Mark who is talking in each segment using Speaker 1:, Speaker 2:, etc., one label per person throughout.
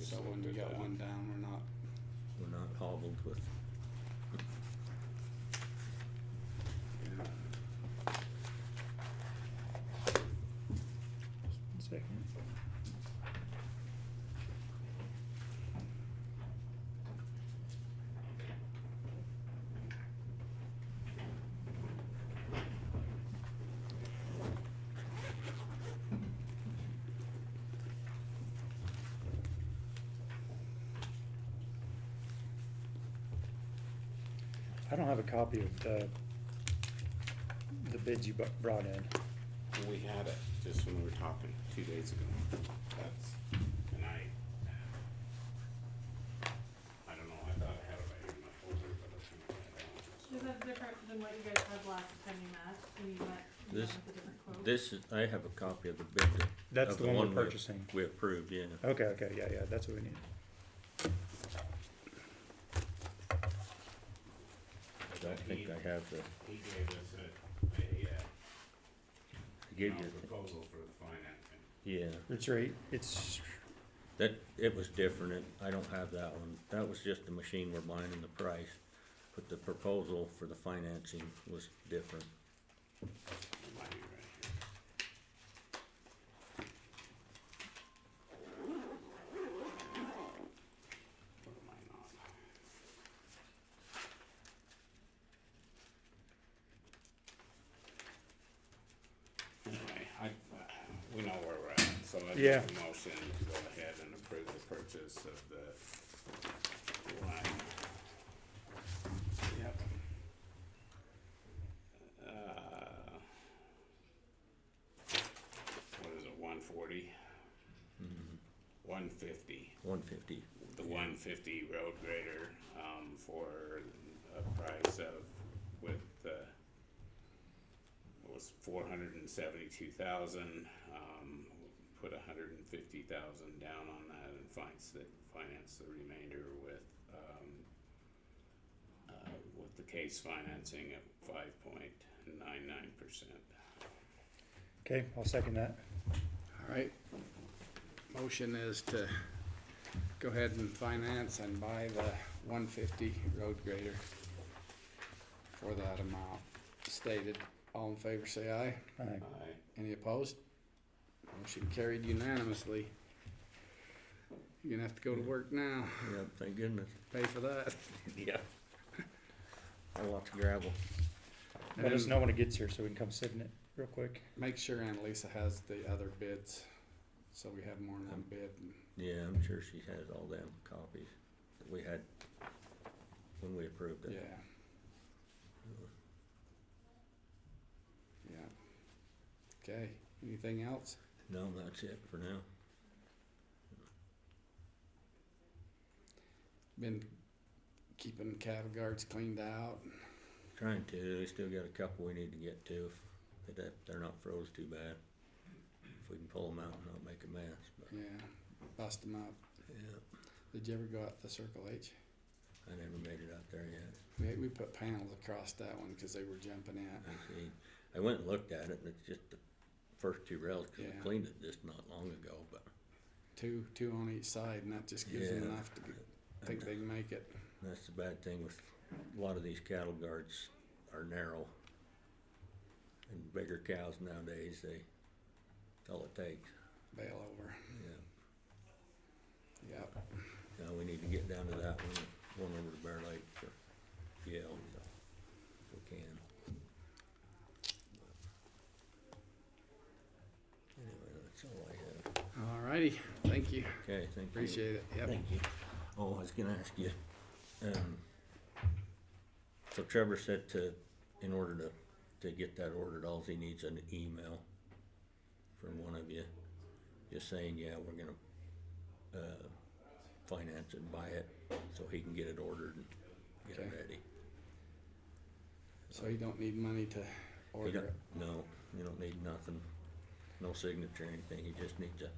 Speaker 1: So when we got one down, we're not,
Speaker 2: We're not hobbled with,
Speaker 3: Second. I don't have a copy of the, the bids you bu- brought in.
Speaker 1: we had it just when we were talking two days ago. That's, and I, I don't know, I thought I had it right here in my folder, but I think I
Speaker 4: Is that different than what you guys had last time you met, when you met, you met
Speaker 2: This-
Speaker 4: with a different quote?
Speaker 2: this is, I have a copy of the bid. that-
Speaker 3: That's
Speaker 2: of
Speaker 3: the one we're
Speaker 2: we-
Speaker 3: purchasing.
Speaker 2: We approved, yeah.
Speaker 3: Okay, okay, yeah, yeah, that's what we need.
Speaker 2: I don't think I have the, I
Speaker 1: He gave us a, a, uh,
Speaker 2: gave
Speaker 1: a
Speaker 2: you,
Speaker 1: proposal for the financing.
Speaker 2: yeah.
Speaker 3: It's right, it's,
Speaker 2: That, it was different, it- I don't have that one, that was just the machine we're buying and the price, but the proposal for the financing was different.
Speaker 1: It might be right here. Or it might not. Anyway, I, uh, we know where we're at, so I
Speaker 3: Yeah.
Speaker 1: make a motion to go ahead and approve the purchase of the line. Yep. Uh, what is it, one forty? One fifty,
Speaker 2: One fifty,
Speaker 1: the one fifty road grader, um, for a price of, with, uh, it was four hundred and seventy-two thousand, um, put a hundred and fifty thousand down on that and finance the, finance the remainder with, um, uh, with the case financing at five point nine nine percent.
Speaker 3: okay, I'll second that.
Speaker 1: All right, motion is to go ahead and finance and buy the one fifty road grader for that amount stated. All in favor, say aye.
Speaker 3: All right,
Speaker 1: Any opposed? Motion carried unanimously. You're gonna have to go to work now,
Speaker 2: yep, thank goodness,
Speaker 1: pay for that.
Speaker 2: yep. A lot of gravel,
Speaker 3: Let us
Speaker 1: And-
Speaker 3: know when it gets here so we can come sit in it real quick.
Speaker 1: Make sure Annalisa has the other bids, so we have more than
Speaker 2: Um,
Speaker 1: one bid.
Speaker 2: yeah, I'm sure she has all them copies that we had when we approved
Speaker 1: Yeah.
Speaker 2: it.
Speaker 1: Yeah. Okay, anything else?
Speaker 2: No, that's it for now,
Speaker 1: Been keeping cattle guards cleaned out.
Speaker 2: trying to, we still got a couple we need to get to, if that, they're not froze too bad. If we can pull them out and not make a mess, but,
Speaker 1: Yeah, bust them up.
Speaker 2: yeah,
Speaker 1: Did you ever go out the Circle H?
Speaker 2: I never made it out there yet.
Speaker 1: We, we put panels across that one because they were jumping out.
Speaker 2: I see. I went and looked at it, and it's just the first two rails, 'cause
Speaker 1: Yeah.
Speaker 2: I cleaned it just not long ago, but
Speaker 1: Two, two on each side, and that just gives them
Speaker 2: Yeah.
Speaker 1: enough to get, think they can make it.
Speaker 2: that's the bad thing with, a lot of these cattle guards are narrow. And bigger cows nowadays, they, that's all it takes,
Speaker 1: Bail over.
Speaker 2: yeah.
Speaker 1: Yep.
Speaker 2: Now, we need to get down to that one, one over to Bear Lake for Yale, if we can. Anyway, that's all I have.
Speaker 1: All righty. Thank you.
Speaker 2: Okay, thank you.
Speaker 1: Appreciate it. Yep.
Speaker 2: Thank you. Oh, I was gonna ask you, um, so Trevor said to, in order to, to get that ordered, all he needs an email from one of you, just saying, yeah, we're gonna, uh, finance and buy it, so he can get it ordered and get it
Speaker 1: Okay.
Speaker 2: ready.
Speaker 1: So you don't need money to
Speaker 2: He
Speaker 1: order
Speaker 2: don't,
Speaker 1: it.
Speaker 2: no, you don't need nothing, no signature, or anything, he just needs a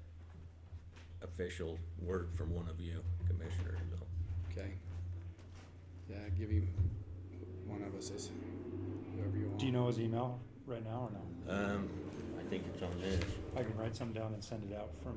Speaker 2: official word from one of you commissioners, so.
Speaker 1: Okay. Yeah, give him one of us is whoever you want.
Speaker 3: Do you know his email right now or no?
Speaker 2: Um, I think it's on this.
Speaker 3: I can write some down and send it out from